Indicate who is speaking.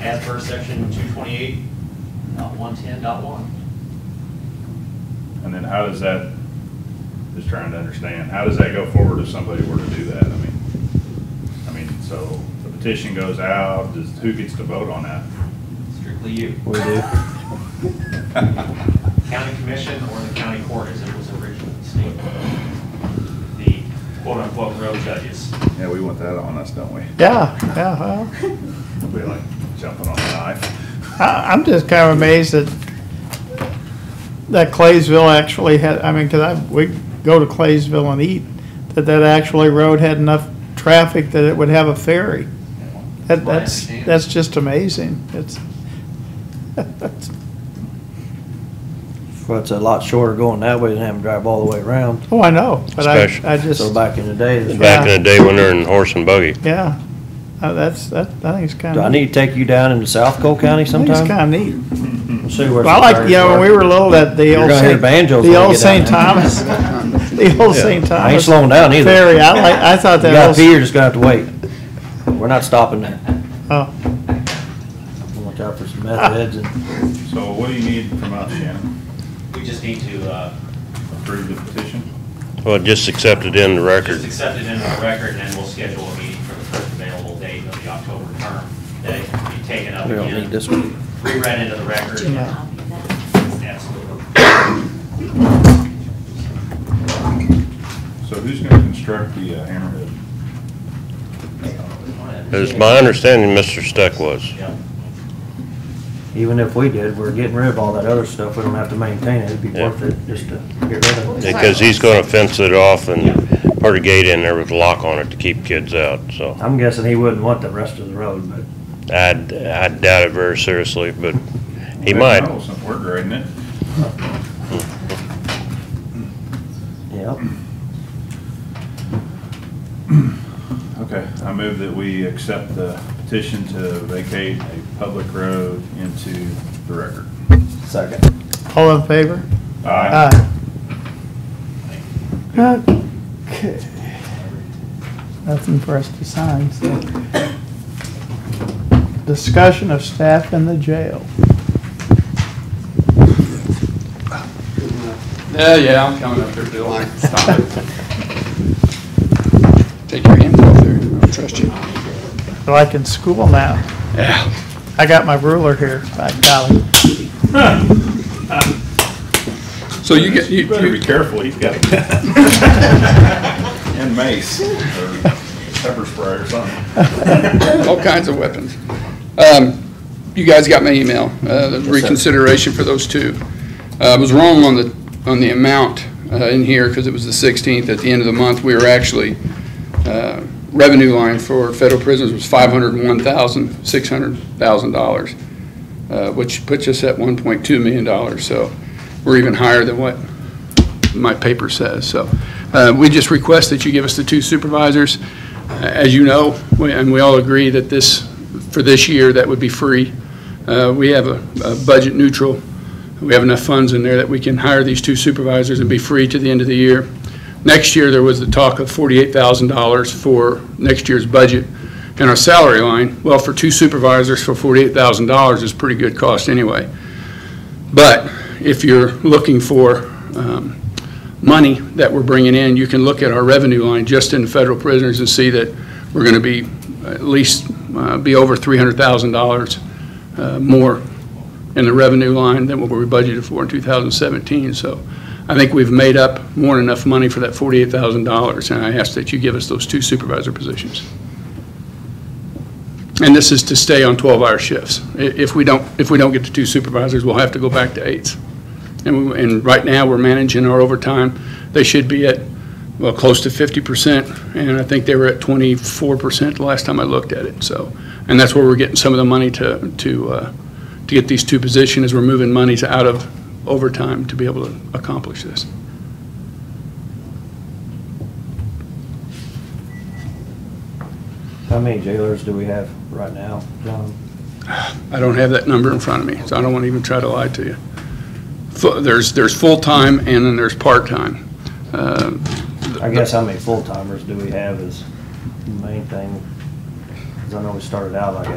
Speaker 1: as per section two twenty-eight, dot one ten, dot one.
Speaker 2: And then how does that, just trying to understand, how does that go forward if somebody were to do that? I mean, I mean, so the petition goes out, does, who gets to vote on that?
Speaker 1: Strictly you.
Speaker 3: We do.
Speaker 1: County commission or the county court as it was originally stated. The quote-unquote road judges.
Speaker 2: Yeah, we want that on us, don't we?
Speaker 3: Yeah, yeah, well,
Speaker 2: We like jumping on the knife.
Speaker 3: I, I'm just kind of amazed that, that Claysville actually had, I mean, cause I, we go to Claysville and eat, that that actually road had enough traffic that it would have a ferry. That,
Speaker 1: Well, I
Speaker 3: that's,
Speaker 1: understand.
Speaker 3: that's just amazing. It's, that's,
Speaker 4: Well, it's a lot shorter going that way than having to drive all the way around.
Speaker 3: oh, I know, but
Speaker 5: Special.
Speaker 3: I, I just,
Speaker 4: So back in the day, it's-
Speaker 5: Back in the day when they're in horse and buggy.
Speaker 3: yeah, Uh, that's, that, I think it's kind
Speaker 4: do
Speaker 3: of.
Speaker 4: I need to take you down into South Cole County
Speaker 3: It's
Speaker 4: sometime?
Speaker 3: kind of neat.
Speaker 4: See where
Speaker 3: Well, I like,
Speaker 4: some
Speaker 3: you know, when
Speaker 4: barriers
Speaker 3: we were little, that the
Speaker 4: You're
Speaker 3: old
Speaker 4: gonna hear
Speaker 3: Saint,
Speaker 4: banjos
Speaker 3: the
Speaker 4: when we
Speaker 3: old
Speaker 4: get
Speaker 3: Saint
Speaker 4: down
Speaker 3: Thomas, the old Saint
Speaker 4: I ain't
Speaker 3: Thomas
Speaker 4: slowing down either.
Speaker 3: ferry. I like, I thought
Speaker 4: You
Speaker 3: that
Speaker 4: got pee,
Speaker 3: was,
Speaker 4: you're just gonna have to wait. We're not stopping there.
Speaker 3: oh,
Speaker 4: Look out for some meth heads and
Speaker 2: So what do you need from us, Shannon?
Speaker 1: We just need to, uh,
Speaker 2: Approve the petition?
Speaker 5: Well, just accepted in the
Speaker 1: just
Speaker 5: record.
Speaker 1: accept it in our record and then we'll schedule a meeting for the first available date of the October term. That it can be taken up
Speaker 4: we don't need
Speaker 1: again,
Speaker 4: this one.
Speaker 1: reread into the record.
Speaker 3: you know.
Speaker 1: Absolutely.
Speaker 2: So who's gonna construct the uh, hammerhead?
Speaker 5: It was my understanding Mr. Steck was.
Speaker 1: Yeah.
Speaker 4: Even if we did, we're getting rid of all that other stuff. We don't have to maintain it. It'd be
Speaker 5: Yeah.
Speaker 4: worth it just to get rid of it.
Speaker 5: Because he's gonna fence it off and put a gate in there with a lock on it to keep kids out, so.
Speaker 4: I'm guessing he wouldn't want the rest of the road, but
Speaker 5: I, I doubt it very seriously, but he
Speaker 2: Heck,
Speaker 5: might.
Speaker 2: no, since We're grading it.
Speaker 4: yeah.
Speaker 2: Okay, I move that we accept the petition to vacate a public road into the record.
Speaker 4: Second.
Speaker 3: all in favor? Aye. Okay. Nothing for us to sign, so. Discussion of staff in the jail.
Speaker 6: Yeah, Uh, yeah, I'm coming up there, Bill. Stop it. Take your hands off there. I don't trust you.
Speaker 3: They're Like in school now.
Speaker 6: Yeah.
Speaker 3: I got my ruler here, by golly.
Speaker 6: So you get, you,
Speaker 2: Better be
Speaker 6: you,
Speaker 2: careful, he's got a gun. And mace, or pepper spray or something.
Speaker 6: all kinds of weapons. Um, you guys got my email, uh, the reconsideration for those two. Uh, I was wrong on the, on the amount, uh, in here, because it was the sixteenth, at the end of the month, we were actually, uh, revenue line for federal prisons was five hundred and one thousand, six hundred thousand dollars, uh, which puts us at one point two million dollars, so we're even higher than what my paper says, so. Uh, we just request that you give us the two supervisors, as you know, we- and we all agree that this, for this year, that would be free. Uh, We have a a budget neutral. We have enough funds in there that we can hire these two supervisors and be free to the end of the year. Next year, there was the talk of $48,000 for next year's budget and our salary line. Well, for two supervisors for $48,000 is pretty good cost anyway. But if you're looking for um, money that we're bringing in, you can look at our revenue line just in federal prisoners and see that we're going to be at least, uh, be over $300,000 uh, more in the revenue line than what we budgeted for in 2017. So I think we've made up more than enough money for that $48,000, and I ask that you give us those two supervisor positions. And this is to stay on 12-hour shifts. I- If we don't, if we don't get to two supervisors, we'll have to go back to eights. And, we- and right now, we're managing our overtime. They should be at, well, close to fifty percent, and I think they were at twenty-four percent the last time I looked at it, so. And that's where we're getting some of the money to, to, uh, to get these two positions, is we're moving monies out of overtime to be able to accomplish this.
Speaker 4: How many jailers do we have right now, John?
Speaker 6: I don't have that number in front of me, so I don't want to even try to lie to you. Fu- There's, there's full-time and then there's part-time. Uh,
Speaker 4: I guess how many full-timers do we have is the main thing. Because I know we started out like